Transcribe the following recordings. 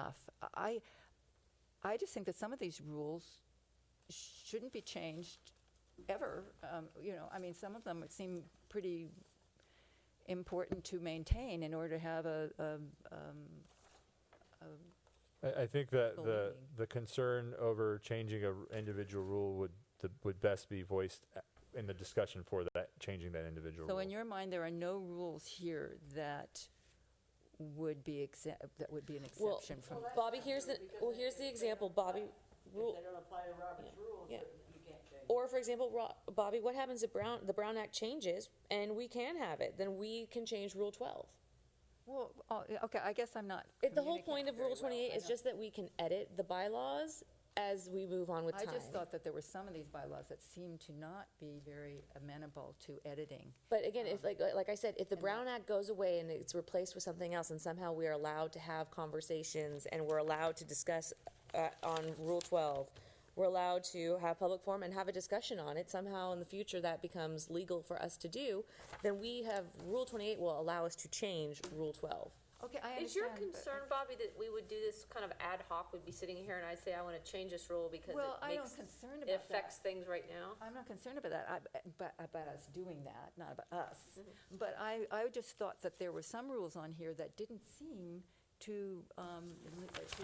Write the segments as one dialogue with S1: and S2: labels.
S1: enough. I, I just think that some of these rules shouldn't be changed ever. Um, You know, I mean, some of them would seem pretty important to maintain in order to have a, a, um,
S2: I, I think that
S1: Full
S2: the,
S1: meeting.
S2: the concern over changing a r- individual rule would, the- would best be voiced a- in the discussion for that, changing that individual
S1: so in
S2: rule.
S1: your mind, there are no rules here that would be exempt, that would be an
S3: Well,
S1: exception from.
S3: Bobby, here's the, well, here's the example, Bobby,
S4: If
S3: rule,
S4: they don't apply to Robert's rules,
S3: yeah.
S4: you can't change.
S3: or for example, Ro- Bobby, what happens if Brown, the Brown Act changes and we can have it, then we can change Rule twelve.
S1: Well, oh, okay, I guess I'm not.
S3: It- The whole
S1: communicating
S3: point of
S1: very
S3: Rule
S1: well.
S3: twenty-eight
S1: I
S3: is
S1: know.
S3: just that we can edit the bylaws as we move on with time.
S1: I just thought that there were some of these bylaws that seemed to not be very amenable to editing.
S3: But again, if
S1: Um,
S3: like like I said, if the Brown Act goes away and it's replaced with something else, and somehow we are allowed to have conversations and we're allowed to discuss uh, on Rule Twelve, we're allowed to have public forum and have a discussion on it. Somehow in the future that becomes legal for us to do, then we have Rule Twenty Eight will allow us to change Rule Twelve.
S1: Okay, I understand.
S5: Is your
S1: but-
S5: concern, Bobby, that we would do this kind of ad hoc, we'd be sitting here and I'd say, I want to change this rule because it
S1: Well, I am
S5: makes-
S1: concerned
S5: It
S1: about
S5: affects
S1: that.
S5: things right now?
S1: I'm not concerned about that, I- about, about us doing that, not about us.
S5: Mm-hmm.
S1: But I, I just thought that there were some rules on here that didn't seem to, um, to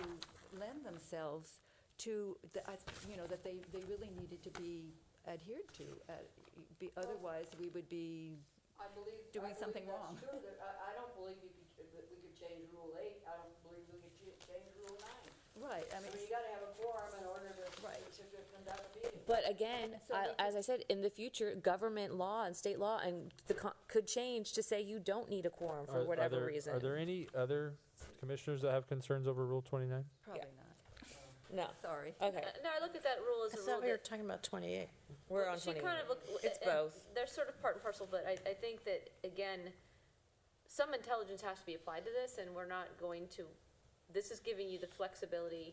S1: lend themselves to, the- I- you know, that they, they really needed to be adhered to. uh, be- Otherwise, we would be,
S4: I believe.
S1: Doing
S4: I believe
S1: something
S4: that's
S1: wrong.
S4: true. There- I, I don't believe you could, that we could change Rule eight, I don't believe we could ch- change Rule nine.
S1: right, I
S4: I mean,
S1: mean,
S4: you gotta have a quorum in order to,
S1: Right.
S4: to to conduct a meeting.
S3: But again,
S1: So
S3: I,
S1: we could-
S3: as I said, in the future, government law and state law and the co- could change to say you don't need a quorum
S2: Are-
S3: for
S2: are
S3: whatever
S2: there-
S3: reason.
S2: Are there any other commissioners that have concerns over Rule twenty-nine?
S1: probably not,
S3: no.
S1: sorry.
S3: Okay,
S5: Uh, No, I look at that rule as a
S6: I
S5: rule
S6: thought we were
S5: that.
S6: talking about 28.
S3: we're on
S5: She
S3: twenty.
S5: kind of look-
S3: It's
S5: and
S3: both.
S5: They're sort of part and parcel, but I, I think that, again, some intelligence has to be applied to this, and we're not going to, this is giving you the flexibility,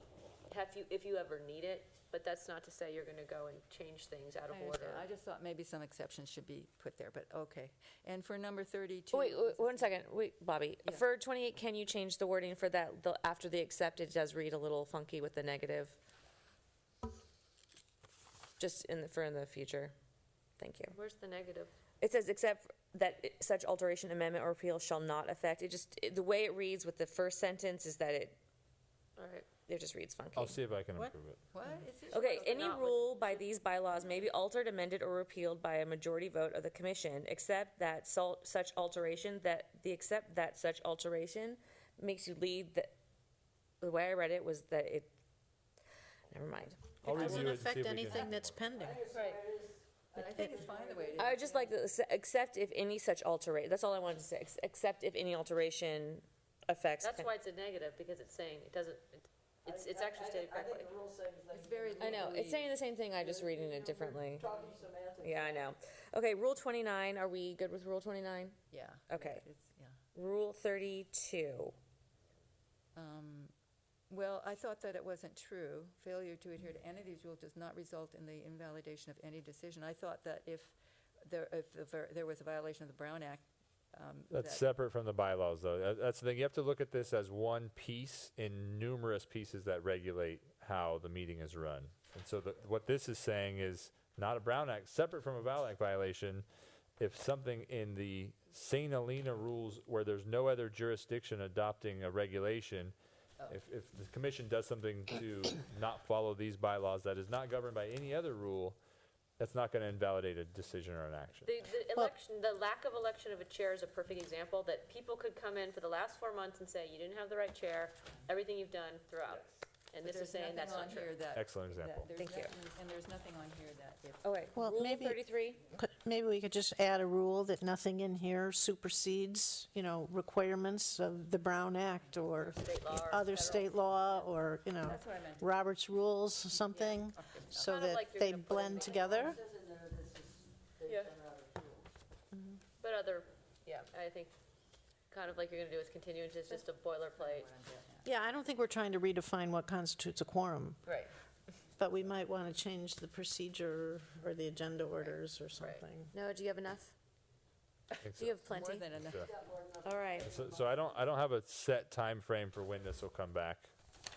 S5: have you, if you ever need it, but that's not to say you're gonna go and change things out of
S1: I
S5: order.
S1: understand. I just thought maybe some exceptions should be put there, but okay. And for number 32.
S3: Oh, Wait, wait, one second. Wait, Bobby.
S1: Yeah.
S3: For 28, can you change the wording for that? The, after the accept, it does read a little funky with the negative. Just in the, for in the future. Thank you.
S5: Where's the negative?
S3: It says, except that it- such alteration, amendment, or repeal shall not affect. It just, it- the way it reads with the first sentence is that it,
S5: All right.
S3: it just reads funky.
S2: I'll see if I can
S6: What?
S2: improve it.
S1: What? It's just-
S3: Okay, any
S5: not with-
S3: rule by these bylaws may be altered, amended, or repealed by a majority vote of the commission, except that sol- such alteration, that, the except that such alteration makes you lead the, the way I read it was that it, never mind.
S2: I'll
S6: It doesn't
S2: review it and see if we can
S6: affect anything that's pending.
S5: Right.
S1: I think it's fine the way it is.
S3: I would just like, the s- except if any such altera, that's all I wanted to say, ex- except if any alteration affects.
S5: That's why it's a negative, because it's saying, it doesn't, it- it's, it's
S4: I-
S5: actually
S4: I-
S5: stated
S4: I
S5: correctly.
S4: think the rule says that.
S1: It's very
S3: I know, it's saying the same thing, I'm just reading it differently.
S4: Talking semantics.
S3: Yeah, I know. Okay, Rule twenty-nine, are we good with Rule twenty-nine?
S1: Yeah.
S3: Okay.
S1: It's- yeah.
S3: Rule thirty-two.
S1: Um, Well, I thought that it wasn't true. Failure to adhere to any of these rules does not result in the invalidation of any decision. I thought that if there, if the ver- there was a violation of the Brown Act. um,
S2: That's
S1: that-
S2: separate from the bylaws, though. That- That's the thing. You have to look at this as one piece in numerous pieces that regulate how the meeting is run. And so, the, what this is saying is not a Brown Act, separate from a Brown Act violation. If something in the St. Helena rules, where there's no other jurisdiction adopting a regulation,
S3: Oh.
S2: if, if the commission does something to not follow these bylaws that is not governed by any other rule, that's not going to invalidate a decision or an action.
S5: The, the election, the lack of election of a chair is a perfect example, that people could come in for the last four months and say, you didn't have the right chair, everything you've done throughout. And this
S1: there's
S5: is saying
S1: nothing
S5: that's
S1: on
S5: not true.
S1: here that-
S2: Excellent
S1: that
S2: example.
S1: there's
S3: Thank you.
S1: nothing- And there's nothing on here that if.
S3: Okay,
S6: Well,
S3: Oh, Rule
S6: maybe-
S3: thirty-three?
S6: Could- Maybe we could just add a rule that nothing in here supersedes, you know, requirements of the Brown Act or
S5: state law or
S6: other
S5: federal.
S6: state law or, you know,
S1: That's what I meant.
S6: Robert's rules, something, so
S5: Kind of
S6: that
S5: like you're
S6: they
S5: gonna put in
S6: blend
S5: the-
S6: together.
S4: It says in there this is,
S5: Yeah.
S4: they've run out of rules.
S5: But other, yeah, I think, kind of like you're gonna do with continuance, it's just a boilerplate.
S6: Yeah, I don't think we're trying to redefine what constitutes a quorum,
S5: Right.
S6: but we might want to change the procedure or the agenda orders or something.
S3: No, do you have enough?
S2: I think
S3: Do
S2: so.
S3: you have
S1: More
S3: plenty?
S1: than enough.
S3: All right.
S2: So, so I don't I don't have a set time frame for when this will come back.